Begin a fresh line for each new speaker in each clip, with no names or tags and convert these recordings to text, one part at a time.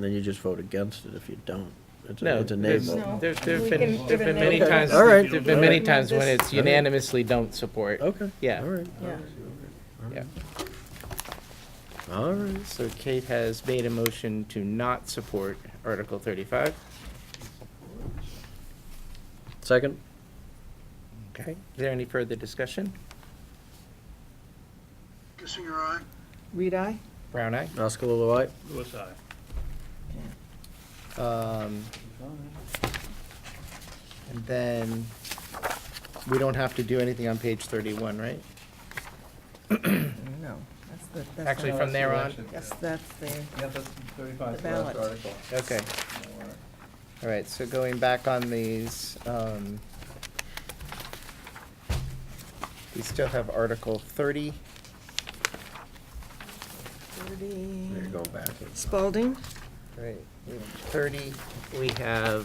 Then you just vote against it if you don't. It's a,
No,
it's a nay
there's-
vote.
No.
There, there've
We
been,
can
there've
give a
been
nay
many
vote.
times,
All right.
there've been
All
many
right.
times when
This-
it's unanimously don't support.
Okay.
Yeah.
All right.
Yeah.
Yeah.
All right.
So Kate has made a motion to not support Article thirty-five.
Second?
Okay. Is there any further discussion?
Kissinger, aye.
Read I?
Brown eye?
Oscar Lilloye?
Lewis, aye.
Um, And then, we don't have to do anything on page thirty-one, right?
No, that's the, that's. the-
Actually, from there on,
Yes, that's the,
Yeah, that's thirty-five,
The
the last
ballot.
article.
okay. All right, so going back on these, um, we still have Article thirty.
You're
thirty,
going backwards.
Spalding,
Right, we have thirty, we have,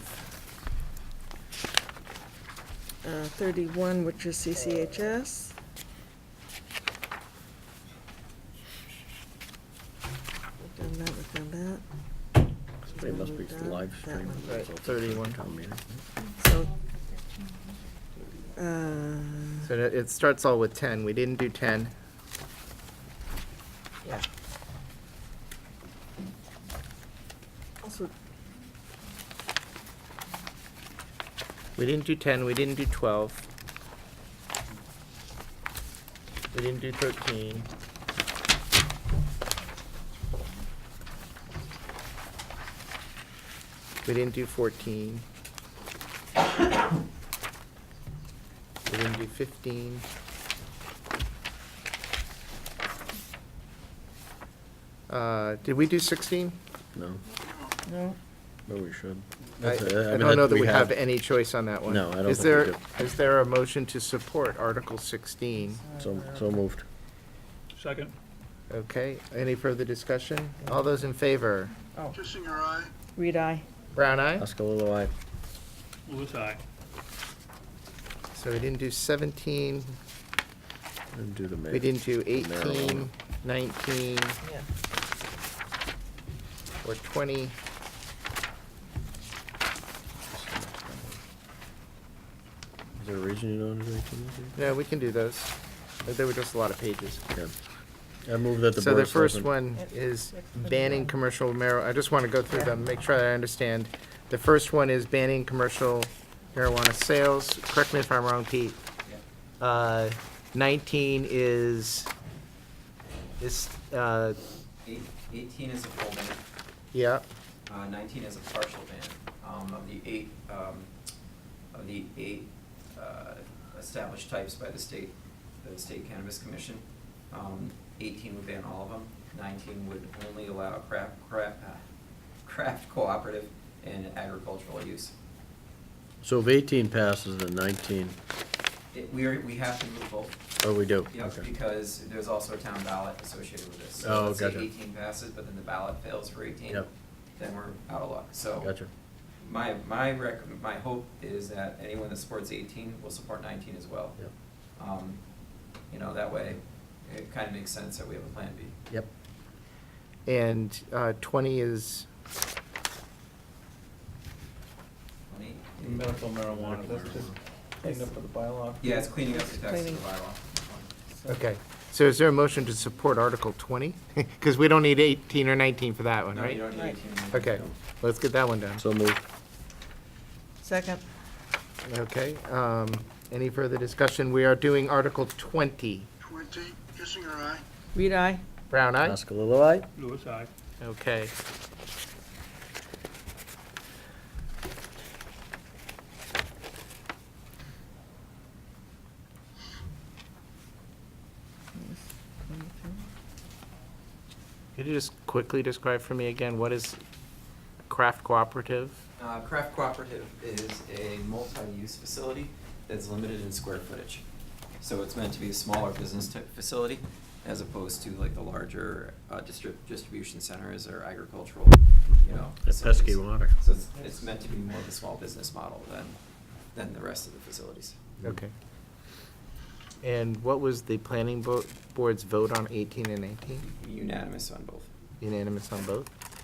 uh, thirty-one, which is CCHS. We've Done that, we've done
Somebody must be live streaming.
Right,
this.
31.
Town meeting.
that, so. Uh,
so it it starts all with ten, we didn't do ten. Yeah.
also,
We didn't do ten, we didn't do twelve. We didn't do thirteen. We didn't do fourteen. We didn't do fifteen. Uh, did we do sixteen?
No,
no,
but we should.
I
That's a- I
I
mean,
don't know that we
had-
have any choice on that one.
No, I don't
Is
think we
there,
do.
is there a motion to support Article 16?
So, so moved.
Second.
Okay, any further discussion? All those in favor?
Kissinger, aye.
read I.
Brown eye?
Oscar Lilloye?
Lewis, aye.
So we didn't do 17,
And do the mayor.
we didn't do
Marijuana.
18, 19,
Yeah.
or 20.
Is there a reason you don't do eighteen?
No, we can do those. But There were just a lot of pages.
Yeah. I move that the
So
board
the
of
first
selectmen-
one
Yep.
is
Yep.
banning commercial marijuana, I just want to go through them, make sure I understand. The first one is banning commercial marijuana sales, correct me if I'm wrong, Pete. Uh, Nineteen is, is, uh,
Eight- 18 is a full ban,
yeah,
uh, 19 is a partial ban. Um, Of the eight, um, of the eight uh, established types by the state, the State Cannabis Commission, um, 18 would ban all of them. 19 would only allow craft, craft, uh, craft cooperative and agricultural use.
So if eighteen passes, then nineteen,
It- We are, we have to move both,
oh, we do?
you know,
Okay.
because there's also a town ballot associated with this.
Oh,
So let's say
gotcha.
18 passes, but then the ballot fails for 18.
Yep.
Then we're out of luck, so.
Gotcha.
My, my rec, my hope is that anyone that supports eighteen will support nineteen as well.
Yep.
Um, you know, that way, it kind of makes sense that we have a plan B.
Yep.
and uh, twenty is,
Twenty?
Medical marijuana, that's just cleaned up for the bylaw.
Yeah, it's cleaning up the text of
Cleaning.
the bylaw.
okay. So is there a motion to support Article twenty? Because we don't need eighteen or nineteen for that one,
No, you
right?
don't need
Right.
eighteen.
Oh, Okay, let's get that one done.
So moved.
Second,
Okay, um, any further discussion? We are doing Article twenty.
Twenty, Kissinger, aye.
read I.
Brown eye?
Oscar Lilloye?
Lewis, aye.
Okay. Could you just quickly describe for me again, what is craft cooperative?
Uh, Craft Cooperative is a multi-use facility that's limited in square footage. So it's meant to be a smaller business type facility as opposed to like the larger uh, distrib- distribution centers or agricultural, you know.
That pesky
facilities.
water.
So it's, it's meant to be more of a small business model than, than the rest of the facilities.
Okay. And what was the planning bo- board's vote on eighteen and nineteen?
Unanimous on both.
Unanimous on both?